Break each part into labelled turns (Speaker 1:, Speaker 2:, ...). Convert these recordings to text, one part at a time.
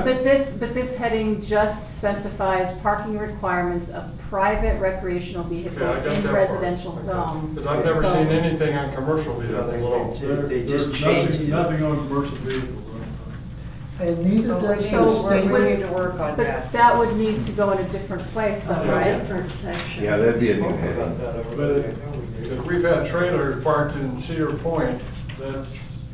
Speaker 1: But this, but this heading just specifies parking requirements of private recreational
Speaker 2: Okay, I
Speaker 1: vehicles
Speaker 2: got
Speaker 1: in
Speaker 2: that part.
Speaker 1: residential
Speaker 2: I got
Speaker 1: zones.
Speaker 2: that. But I've never
Speaker 1: So-
Speaker 2: seen anything on commercial
Speaker 3: Yeah, they
Speaker 2: vehicles at all.
Speaker 3: There-
Speaker 4: They
Speaker 3: There's
Speaker 4: just
Speaker 3: nothing,
Speaker 4: changed it.
Speaker 3: nothing on commercial vehicles. I don't think.
Speaker 5: And neither
Speaker 6: So
Speaker 5: does the
Speaker 1: so
Speaker 6: we're-
Speaker 1: it
Speaker 5: state.
Speaker 1: would-
Speaker 6: we need to work on
Speaker 1: but
Speaker 6: that.
Speaker 1: That would need to go in a different place, though,
Speaker 2: Yeah.
Speaker 1: right?
Speaker 6: Different section.
Speaker 7: Yeah, that'd be a new heading.
Speaker 2: But it- if we've had trailers parked in Cedar Point, that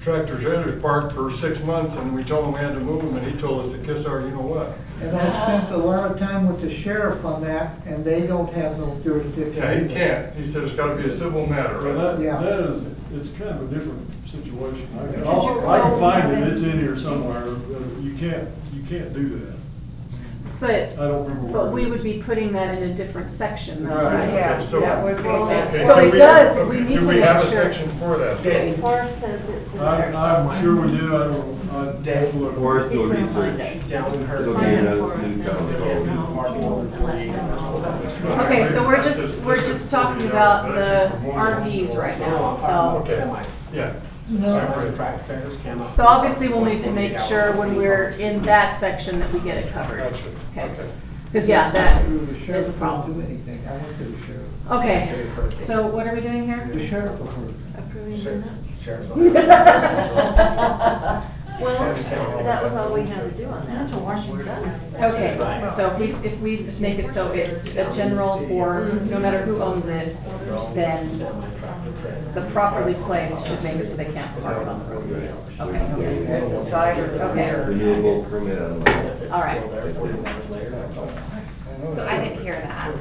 Speaker 2: tractor trailer's parked for six months, and we told him we had to move them, and he told us to kiss our, you know what?
Speaker 5: And I spent a lot of time with the sheriff on that, and they don't have no jurisdiction.
Speaker 2: Yeah, he can't, he said it's gotta be a civil matter,
Speaker 3: Well,
Speaker 2: right?
Speaker 3: that,
Speaker 5: Yeah.
Speaker 3: that is, it's kind of a different situation. I can,
Speaker 6: Because
Speaker 3: I'll-
Speaker 6: you're
Speaker 3: I can find
Speaker 6: always
Speaker 3: it, it's in
Speaker 6: having-
Speaker 3: here somewhere, Uh, you can't, you can't do that.
Speaker 1: But,
Speaker 3: I don't remember.
Speaker 1: but
Speaker 3: where
Speaker 1: we
Speaker 3: it
Speaker 1: would
Speaker 3: is.
Speaker 1: be putting that in a different section, though,
Speaker 3: Right.
Speaker 1: right?
Speaker 6: Yeah,
Speaker 2: Okay, so-
Speaker 6: that would be that.
Speaker 2: okay,
Speaker 1: So
Speaker 2: do
Speaker 1: it
Speaker 2: we-
Speaker 1: does,
Speaker 2: okay,
Speaker 1: we need
Speaker 2: Do
Speaker 1: to
Speaker 2: we have a
Speaker 1: make sure.
Speaker 2: section for that?
Speaker 4: Yeah.
Speaker 6: Forrest says it's in
Speaker 3: I,
Speaker 6: there.
Speaker 3: I'm sure we do, I don't, I.
Speaker 4: Dave
Speaker 7: Or
Speaker 3: Forrest.
Speaker 7: it's a
Speaker 6: He's gonna find it.
Speaker 7: research.
Speaker 4: Down in her.
Speaker 7: It'll be in a new code.
Speaker 1: Okay, so we're just, we're just talking about the RVs right
Speaker 2: Oh,
Speaker 1: now, so.
Speaker 2: Yeah.
Speaker 5: No,
Speaker 1: So obviously, we'll need to make sure when we're in that section that we get it covered.
Speaker 2: Gotcha.
Speaker 1: Okay. Because, yeah, that
Speaker 5: The
Speaker 1: is
Speaker 5: sheriff
Speaker 1: a
Speaker 5: won't do
Speaker 1: problem.
Speaker 5: anything, I went to the sheriff.
Speaker 1: Okay, so what are we doing here?
Speaker 5: The sheriff will hurt.
Speaker 6: Approving the minutes.
Speaker 8: Well, that was all we had to do on that.
Speaker 1: Okay, so if we, if we just make it so it's a general for, no matter who owns it, then the properly placed should make it so they can't park it on the road. Okay,
Speaker 6: At the side or the
Speaker 1: Okay.
Speaker 6: rear.
Speaker 7: Renewable permit unlocked.
Speaker 1: all right.
Speaker 8: So I didn't hear that.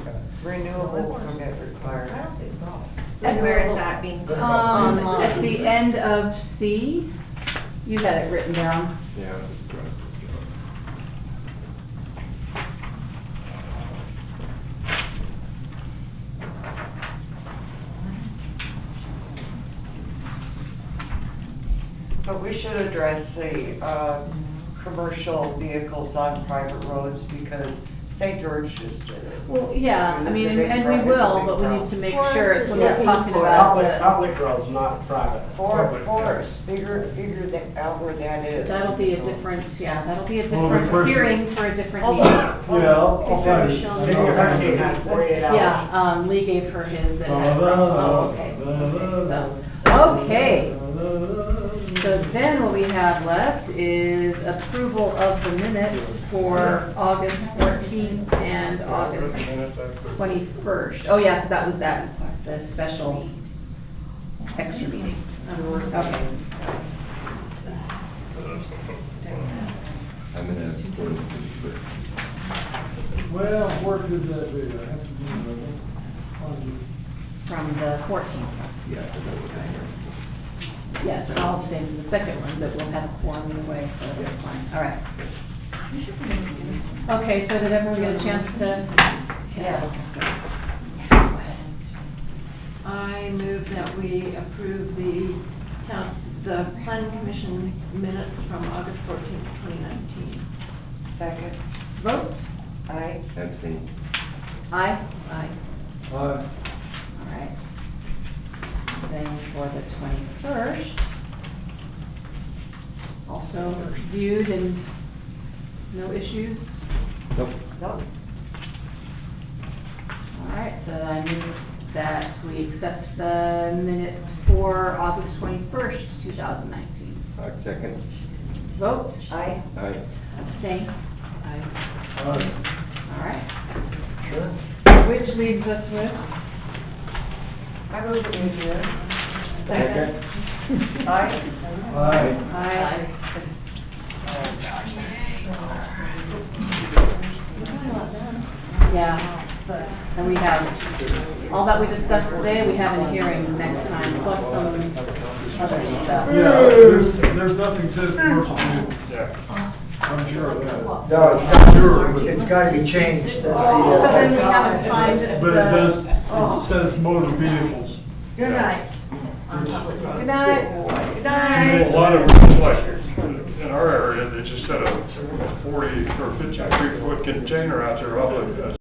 Speaker 6: Renewable permit required.
Speaker 8: And where is that being?
Speaker 1: Um, at the end of C, you had it written down.
Speaker 7: Yeah. that's right.
Speaker 6: But we should address the, uh, commercial vehicles on private roads because St. George just did it.
Speaker 1: Well, yeah, I mean, and and we will, but we need to make
Speaker 8: Well,
Speaker 1: sure it's when we're
Speaker 8: yeah.
Speaker 1: talking about
Speaker 4: Public,
Speaker 1: the,
Speaker 4: public roads, not private.
Speaker 6: For,
Speaker 4: Public
Speaker 6: for,
Speaker 4: roads.
Speaker 6: figure, figure that out where that is.
Speaker 1: that'll be a different, yeah, that'll be a
Speaker 3: Well, the
Speaker 1: different
Speaker 3: first-
Speaker 1: hearing for a different
Speaker 6: Hold
Speaker 1: meeting.
Speaker 6: on.
Speaker 3: Yeah, I'll, I'll find it.
Speaker 4: City of Hurricane has forty-eight hours.
Speaker 1: Yeah, um, Lee gave her his and. I- oh, okay, okay, so- Okay, so then what we have left is approval of the minutes for August fourteenth and August twenty-first. Oh, yeah, 'cause that was that, the special extra meeting. Okay.
Speaker 7: I'm gonna have to go to the-
Speaker 3: Well, where could that be? I have to do that.
Speaker 1: from the fourteenth.
Speaker 7: Yeah, I forgot what that was.
Speaker 1: Yes, and I'll abstain from the second one, but we'll have a forum anyway, so that's fine, all right. Okay, so did everyone get a chance to? Yeah.
Speaker 8: I move that we approve the town, the planning commission minutes from August fourteenth, twenty nineteen.
Speaker 6: Second,
Speaker 1: Vote?
Speaker 6: aye.
Speaker 7: Abstain.
Speaker 1: Aye. Aye.
Speaker 3: Aye.
Speaker 1: All right. Then for the twenty-first, also reviewed and no issues?
Speaker 7: Nope.
Speaker 6: No,
Speaker 1: All right, so I move that we accept the minutes for August twenty-first, two thousand nineteen.
Speaker 7: I second.
Speaker 1: Vote,
Speaker 6: aye.
Speaker 7: Aye.
Speaker 1: abstain. Aye.
Speaker 3: Aye.
Speaker 1: All right. Which leaves us with?
Speaker 6: I move it in here.
Speaker 7: Second.
Speaker 6: Aye.
Speaker 3: Aye.
Speaker 1: Aye. Yeah, and we have, all that we discussed today, we have in hearing next time, plus some other stuff.
Speaker 3: Yeah, there's, there's nothing to commercial vehicles.
Speaker 2: Yeah.
Speaker 3: I'm sure of that.
Speaker 4: No, it's got, it's gotta be changed. That's the,
Speaker 1: So
Speaker 4: uh,
Speaker 1: then we have to find the.
Speaker 3: But it does,
Speaker 1: oh.
Speaker 3: it says motor vehicles.
Speaker 8: Good night.
Speaker 1: Good night. Good
Speaker 2: You know,
Speaker 1: night.
Speaker 2: A lot of, them, like, in our area, they just had a forty or fifty-three foot container out there, uh, all the